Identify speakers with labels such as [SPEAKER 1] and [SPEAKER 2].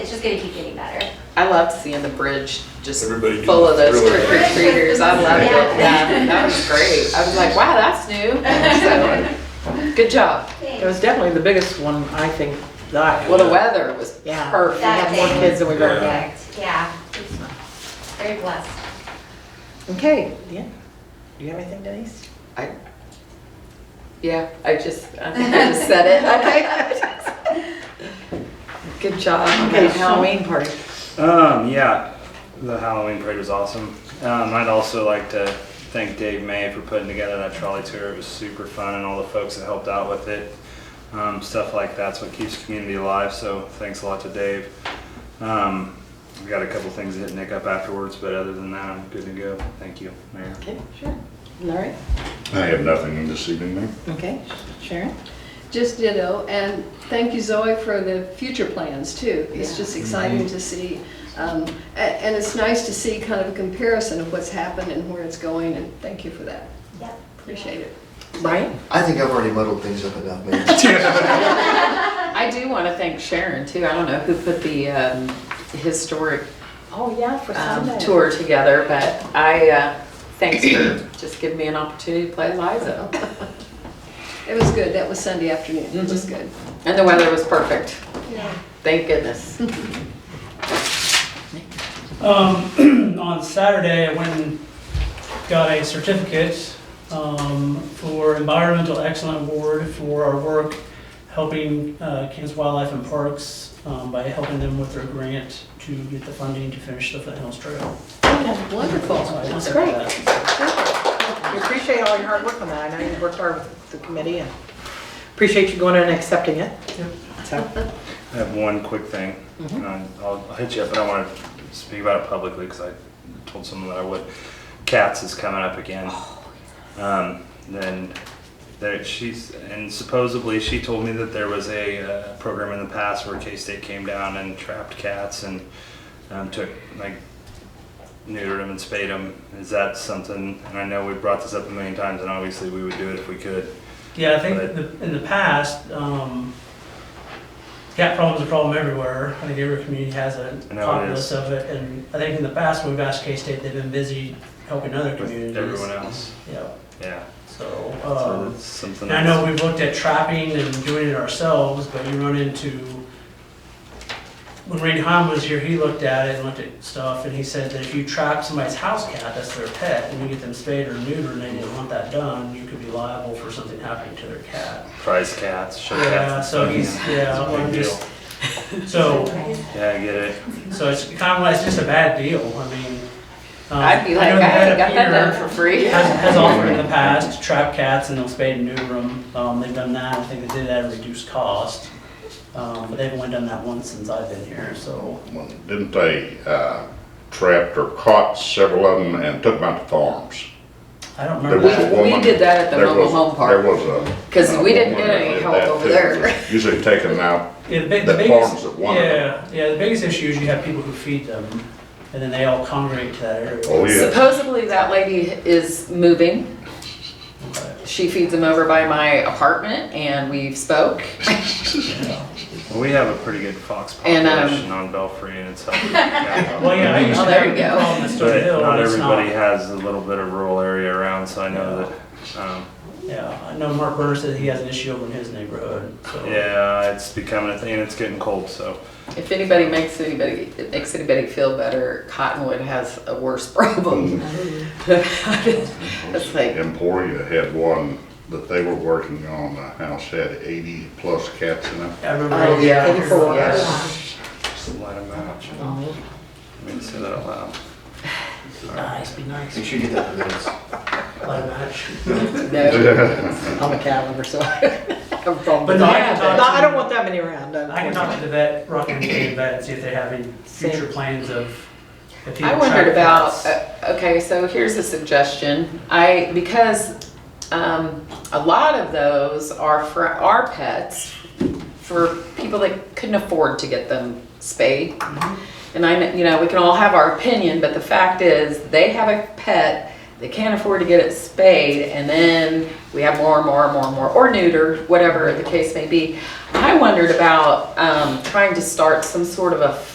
[SPEAKER 1] It's just gonna keep getting better.
[SPEAKER 2] I loved seeing the bridge just
[SPEAKER 3] Everybody doing
[SPEAKER 2] full of those
[SPEAKER 3] thriller.
[SPEAKER 2] trick or treaters. I loved
[SPEAKER 1] Yeah.
[SPEAKER 2] it. Yeah, that was great. I was like, wow, that's new. So, good job.
[SPEAKER 4] It was definitely the biggest one, I think, that I.
[SPEAKER 2] Well, the weather was
[SPEAKER 4] Yeah.
[SPEAKER 1] That
[SPEAKER 4] We
[SPEAKER 2] perfect.
[SPEAKER 4] have more
[SPEAKER 1] thing.
[SPEAKER 4] kids than we've ever had.
[SPEAKER 1] Perfect, yeah. It's Very blessed.
[SPEAKER 4] Okay, yeah. Do you have anything, Denise?
[SPEAKER 2] I, yeah, I just, I think I just said it. Okay. Good job.
[SPEAKER 4] Okay, Halloween party.
[SPEAKER 5] Um, yeah, the Halloween parade was awesome. Um, I'd also like to thank Dave May for putting together that trolley tour. It was super fun, and all the folks that helped out with it. Um, stuff like that's what keeps community alive. So thanks a lot to Dave. Um, we got a couple things to hit Nick up afterwards, but other than that, I'm good to go. Thank you, Mayor.
[SPEAKER 4] Okay, sure. Larry?
[SPEAKER 6] I have nothing this evening, Mayor.
[SPEAKER 4] Okay, Sharon?
[SPEAKER 7] Just ditto, and thank you Zoe for the future plans too. It's
[SPEAKER 4] Yeah.
[SPEAKER 7] just exciting to see, um, a- and it's nice to see kind of a comparison of what's happened and where it's going, and thank you for that.
[SPEAKER 1] Yep.
[SPEAKER 7] Appreciate it.
[SPEAKER 4] Brian?
[SPEAKER 8] I think I've already muddled things up enough, man.
[SPEAKER 2] I do want to thank Sharon too. I don't know who put the um, historic
[SPEAKER 4] Oh, yeah, for
[SPEAKER 2] um, tour together, but I, uh, thanks for just giving me an opportunity to play Liza.
[SPEAKER 7] It was good, that was Sunday afternoon, it was good.
[SPEAKER 2] And the weather was perfect.
[SPEAKER 1] Yeah.
[SPEAKER 2] Thank goodness.
[SPEAKER 9] Um, on Saturday, I went and got a certificate um, for Environmental Excellence Award for our work helping uh, Kansas Wildlife and Parks um, by helping them with their grant to get the funding to finish the Foothills Trail.
[SPEAKER 7] Wonderful.
[SPEAKER 9] So I
[SPEAKER 4] That's
[SPEAKER 9] accepted
[SPEAKER 4] great.
[SPEAKER 9] that.
[SPEAKER 4] We appreciate all your hard work on that. I know you worked hard with the committee and appreciate you going in and accepting it. So,
[SPEAKER 5] I have one quick thing, and I- I'll, I'll hit you up, but I want to speak about it publicly because I told someone that I would. Cats is coming up again. Um, then there, she's and supposedly she told me that there was a uh, program in the past where K State came down and trapped cats and um, took like neutered them and spayed them. Is that something? And I know we brought this up a million times, and obviously we would do it if we could.
[SPEAKER 9] Yeah, I think
[SPEAKER 5] But-
[SPEAKER 9] the- in the past, um, cat problem's a problem everywhere. I think every community has a
[SPEAKER 5] I know it
[SPEAKER 9] populace
[SPEAKER 5] is.
[SPEAKER 9] of it, and I think in the past, we've asked K-State, they've been busy helping other communities.
[SPEAKER 5] With everyone else,
[SPEAKER 9] Yeah,
[SPEAKER 5] yeah.
[SPEAKER 9] so,
[SPEAKER 5] So
[SPEAKER 9] uh,
[SPEAKER 5] that's something.
[SPEAKER 9] and I
[SPEAKER 5] that's-
[SPEAKER 9] know we've looked at trapping and doing it ourselves, but you run into, when Randy Hahn was here, he looked at it and looked at stuff, and he said that if you trap somebody's house cat, that's their pet, and you get them spayed or neutered, and they didn't want that done, you could be liable for something happening to their cat.
[SPEAKER 5] prize cats, show cats.
[SPEAKER 9] Yeah,
[SPEAKER 5] and
[SPEAKER 9] so
[SPEAKER 5] stuff,
[SPEAKER 9] he's,
[SPEAKER 5] you know,
[SPEAKER 9] yeah,
[SPEAKER 5] it's a
[SPEAKER 9] well,
[SPEAKER 5] big
[SPEAKER 9] just, so,
[SPEAKER 5] deal. Yeah, I get it.
[SPEAKER 9] so it's kind of like, it's just a bad deal, I mean. um,
[SPEAKER 2] I'd be
[SPEAKER 9] I
[SPEAKER 2] like,
[SPEAKER 9] know
[SPEAKER 2] I
[SPEAKER 9] the head
[SPEAKER 2] got
[SPEAKER 9] of
[SPEAKER 2] that
[SPEAKER 9] Peter
[SPEAKER 2] done for free.
[SPEAKER 9] Has, has offered in the past to trap cats and they'll spay and neuter them, um, they've done that, I think they did that at a reduced cost. Um, but they've only done that once since I've been here, so,
[SPEAKER 6] Well, Didn't they uh, trapped or caught several of them and took them out to farms?
[SPEAKER 9] I don't
[SPEAKER 6] There
[SPEAKER 9] remember.
[SPEAKER 6] was a
[SPEAKER 9] that.
[SPEAKER 2] We- we
[SPEAKER 6] woman-
[SPEAKER 2] did that at the
[SPEAKER 6] there
[SPEAKER 2] mobile
[SPEAKER 6] was-
[SPEAKER 2] home park.
[SPEAKER 6] There was a.
[SPEAKER 2] 'Cause
[SPEAKER 6] a
[SPEAKER 2] we didn't
[SPEAKER 6] woman
[SPEAKER 2] get
[SPEAKER 6] that
[SPEAKER 2] any
[SPEAKER 6] did
[SPEAKER 2] help
[SPEAKER 6] that
[SPEAKER 2] over
[SPEAKER 6] too.
[SPEAKER 2] there.
[SPEAKER 6] Usually take them out,
[SPEAKER 9] Yeah, the big, the
[SPEAKER 6] the farms
[SPEAKER 9] biggest,
[SPEAKER 6] that wanted them.
[SPEAKER 9] yeah, yeah, the biggest issue is you have people who feed them and then they all congregate to that area.
[SPEAKER 6] Oh, yeah.
[SPEAKER 2] Supposedly that lady is moving. She feeds them over by my apartment and we've spoke.
[SPEAKER 5] Well, we have a pretty good fox
[SPEAKER 2] And,
[SPEAKER 5] population
[SPEAKER 2] um,
[SPEAKER 5] on Belfry, and it's helping. yeah.
[SPEAKER 9] Well, yeah, I used
[SPEAKER 2] Oh,
[SPEAKER 9] to
[SPEAKER 2] there
[SPEAKER 9] have
[SPEAKER 2] you
[SPEAKER 9] a
[SPEAKER 2] go.
[SPEAKER 9] problem in Stony
[SPEAKER 5] But
[SPEAKER 9] Hill,
[SPEAKER 5] not
[SPEAKER 9] but it's
[SPEAKER 5] everybody
[SPEAKER 9] not.
[SPEAKER 5] has a little bit of rural area around, so I know that. Um,
[SPEAKER 9] Yeah, I know Mark Burner said he has an issue over in his neighborhood, so.
[SPEAKER 5] yeah, it's becoming a thing, and it's getting cold, so
[SPEAKER 2] If anybody makes anybody, it makes anybody feel better, Cottonwood has a worse problem.
[SPEAKER 9] Mm-hmm.
[SPEAKER 2] It's like,
[SPEAKER 6] Emporia had one that they were working on, the house had eighty plus cats in it.
[SPEAKER 9] I remember.
[SPEAKER 2] oh yeah.
[SPEAKER 4] Eighty-four.
[SPEAKER 2] yeah.
[SPEAKER 5] just let them out. you know.
[SPEAKER 9] Oh.
[SPEAKER 5] Let me say that out loud.
[SPEAKER 4] Nice, be nice.
[SPEAKER 8] Make sure you get that for minutes.
[SPEAKER 9] Like that.
[SPEAKER 2] No,
[SPEAKER 4] I'm a cat lover, so I
[SPEAKER 2] I'm from-
[SPEAKER 9] But no, I can talk to-
[SPEAKER 4] I don't want that many around.
[SPEAKER 9] I can talk to the vet, Rockin' County Vet, and see if they have any future plans of. if he
[SPEAKER 2] I
[SPEAKER 9] would
[SPEAKER 2] wondered
[SPEAKER 9] track
[SPEAKER 2] about,
[SPEAKER 9] cats.
[SPEAKER 2] uh, okay, so here's a suggestion. I, because um, a lot of those are for our pets, for people that couldn't afford to get them spayed. And I, kn- you know, we can all have our opinion, but the fact is, they have a pet, they can't afford to get it spayed, and then we have more and more and more and more, or neutered, whatever the case may be. I wondered about um, trying to start some sort of a